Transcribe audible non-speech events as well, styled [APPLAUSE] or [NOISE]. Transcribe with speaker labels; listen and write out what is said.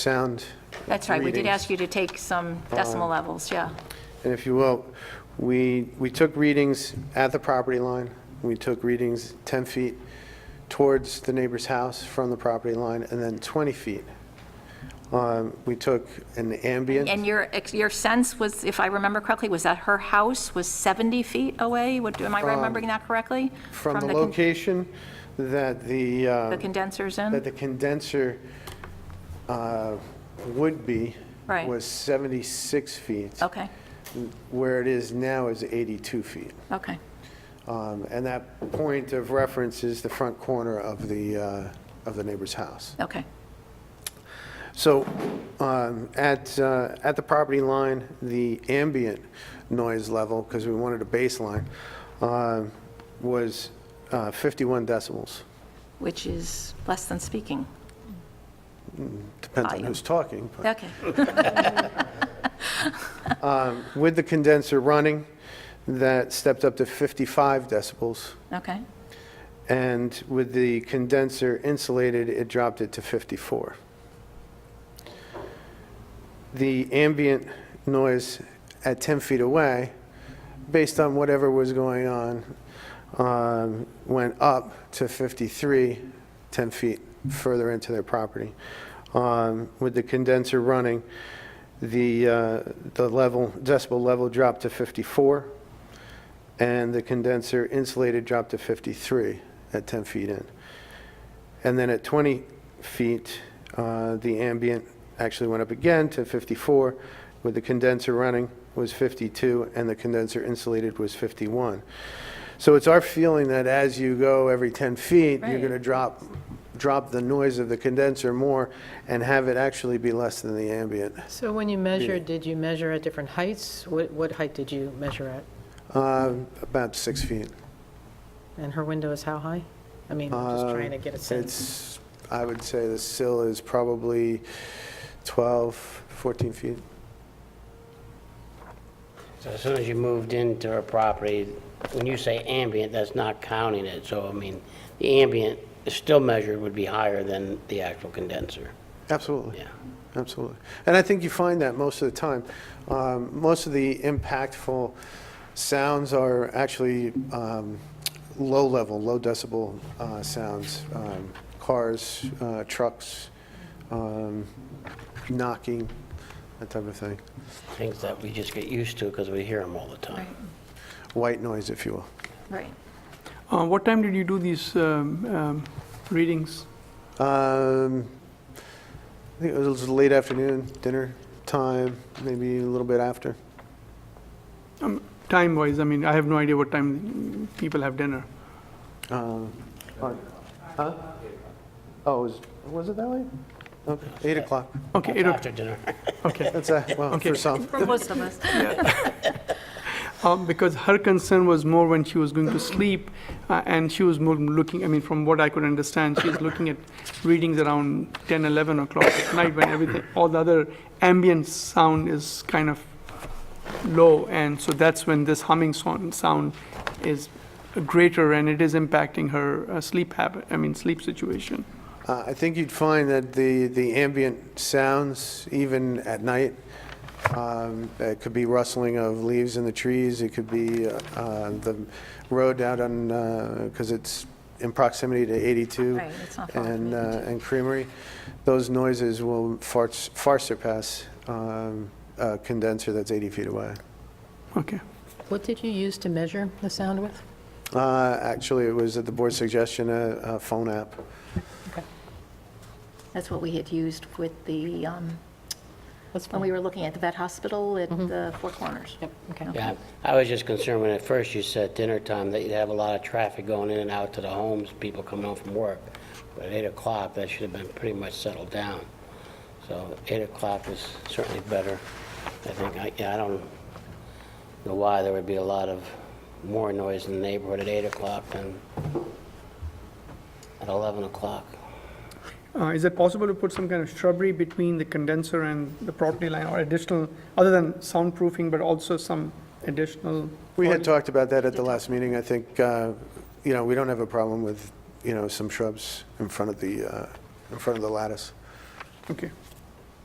Speaker 1: sound
Speaker 2: That's right, we did
Speaker 1: readings. Uh,
Speaker 2: ask you to take some decimal levels, yeah.
Speaker 1: And if you will, we, we took readings at the property line. We took readings 10 feet towards the neighbor's house from the property line, and then 20 feet. Um, We took an ambient,
Speaker 2: And your, ex- your sense was, if I remember correctly, was that her house was 70 feet away? What- Am I remembering that correctly?
Speaker 1: from the
Speaker 2: con-
Speaker 1: location that the,
Speaker 2: The
Speaker 1: uh,
Speaker 2: condensers
Speaker 1: that
Speaker 2: in?
Speaker 1: the condenser uh, would be.
Speaker 2: Right.
Speaker 1: Was 76 feet.
Speaker 2: Okay,
Speaker 1: Where it is now is 82 feet.
Speaker 2: okay.
Speaker 1: Um, And that point of reference is the front corner of the, uh, of the neighbor's house.
Speaker 2: Okay,
Speaker 1: So um, at, uh, at the property line, the ambient noise level, because we wanted a baseline, um, was uh, 51 decibels.
Speaker 2: which is less than speaking.
Speaker 1: Depends on
Speaker 2: Volume.
Speaker 1: who's talking.
Speaker 2: [LAUGHS]
Speaker 1: but-
Speaker 2: Okay,
Speaker 1: um, With the condenser running, that stepped up to 55 decibels.
Speaker 2: okay,
Speaker 1: And with the condenser insulated, it dropped it to 54. The ambient noise at 10 feet away, based on whatever was going on, um, went up to 53, 10 feet further into their property. Um, With the condenser running, the, uh, the level, decibel level dropped to 54 and the condenser insulated dropped to 53 at 10 feet in. And then at 20 feet, uh, the ambient actually went up again to 54, with the condenser running was 52, and the condenser insulated was 51. So it's our feeling that as you go every 10 feet, you're
Speaker 2: Right.
Speaker 1: going to drop, drop the noise of the condenser more and have it actually be less than the ambient.
Speaker 3: So when you measured, did you measure at different heights? What, what height did you measure at?
Speaker 1: Uh, About six feet.
Speaker 3: And her window is how high? I mean, I'm just trying to get a
Speaker 1: Uh,
Speaker 3: sense.
Speaker 1: It's, I would say the sill is probably 12, 14 feet.
Speaker 4: So as soon as you moved into a property, when you say ambient, that's not counting it, so I mean, the ambient is still measured would be higher than the actual condenser,
Speaker 1: Absolutely,
Speaker 4: yeah.
Speaker 1: absolutely. And I think you find that most of the time. Um, Most of the impactful sounds are actually um, low level, low decibel uh, sounds. Um, Cars, uh, trucks, um, knocking, that type of thing.
Speaker 4: Things that we just get used to because we hear them all the
Speaker 2: right,
Speaker 4: time.
Speaker 1: White noise, if you will.
Speaker 2: right.
Speaker 5: Uh, What time did you do these um, um, readings?
Speaker 1: Um, I think it was late afternoon, dinner time, maybe a little bit after.
Speaker 5: Time-wise, I mean, I have no idea what time people have dinner.
Speaker 1: Um, on- huh? Oh, was, was it that late? Okay, eight o'clock.
Speaker 5: Okay, eight o'clock,
Speaker 4: After dinner.
Speaker 5: okay.
Speaker 1: That's, a- well,
Speaker 5: Okay.
Speaker 1: for some.
Speaker 2: For most [LAUGHS] of us.
Speaker 5: Um, Because her concern was more when she was going to sleep, uh, and she was more looking, I mean, from what I could understand, she's looking at readings around 10, 11 o'clock at night, when everything, all the other ambient sound is kind of low, and so that's when this humming son- sound is greater, and it is impacting her uh, sleep habit, I mean, sleep situation.
Speaker 1: Uh, I think you'd find that the, the ambient sounds, even at night, um, it could be rustling of leaves in the trees, it could be uh, uh, the road out on, because it's in proximity to 82
Speaker 2: Right, it's not far from
Speaker 1: and, uh,
Speaker 2: 82.
Speaker 1: and Creamery, those noises will far far surpass um, a condenser that's 80 feet away.
Speaker 5: Okay.
Speaker 3: What did you use to measure the sound with?
Speaker 1: Uh, Actually, it was at the board's suggestion, a a phone app.
Speaker 2: That's what we had used with the, um,
Speaker 3: That's
Speaker 2: when we
Speaker 3: fine.
Speaker 2: were looking at the vet hospital at the Four Corners.
Speaker 3: Yep, okay.
Speaker 4: Yeah, I was just concerned when at first you said dinner time, that you'd have a lot of traffic going in and out to the homes, people coming home from work. But at eight o'clock, that should have been pretty much settled down. So eight o'clock is certainly better. I think, I, yeah, I don't know why there would be a lot of more noise in the neighborhood at eight o'clock than at eleven o'clock.
Speaker 5: Uh, Is it possible to put some kind of shrubbery between the condenser and the property line, or additional, other than soundproofing, but also some additional?
Speaker 1: We had talked about that at the last meeting. I think, uh, you know, we don't have a problem with, you know, some shrubs in front of the, uh, in front of the lattice.
Speaker 5: Okay.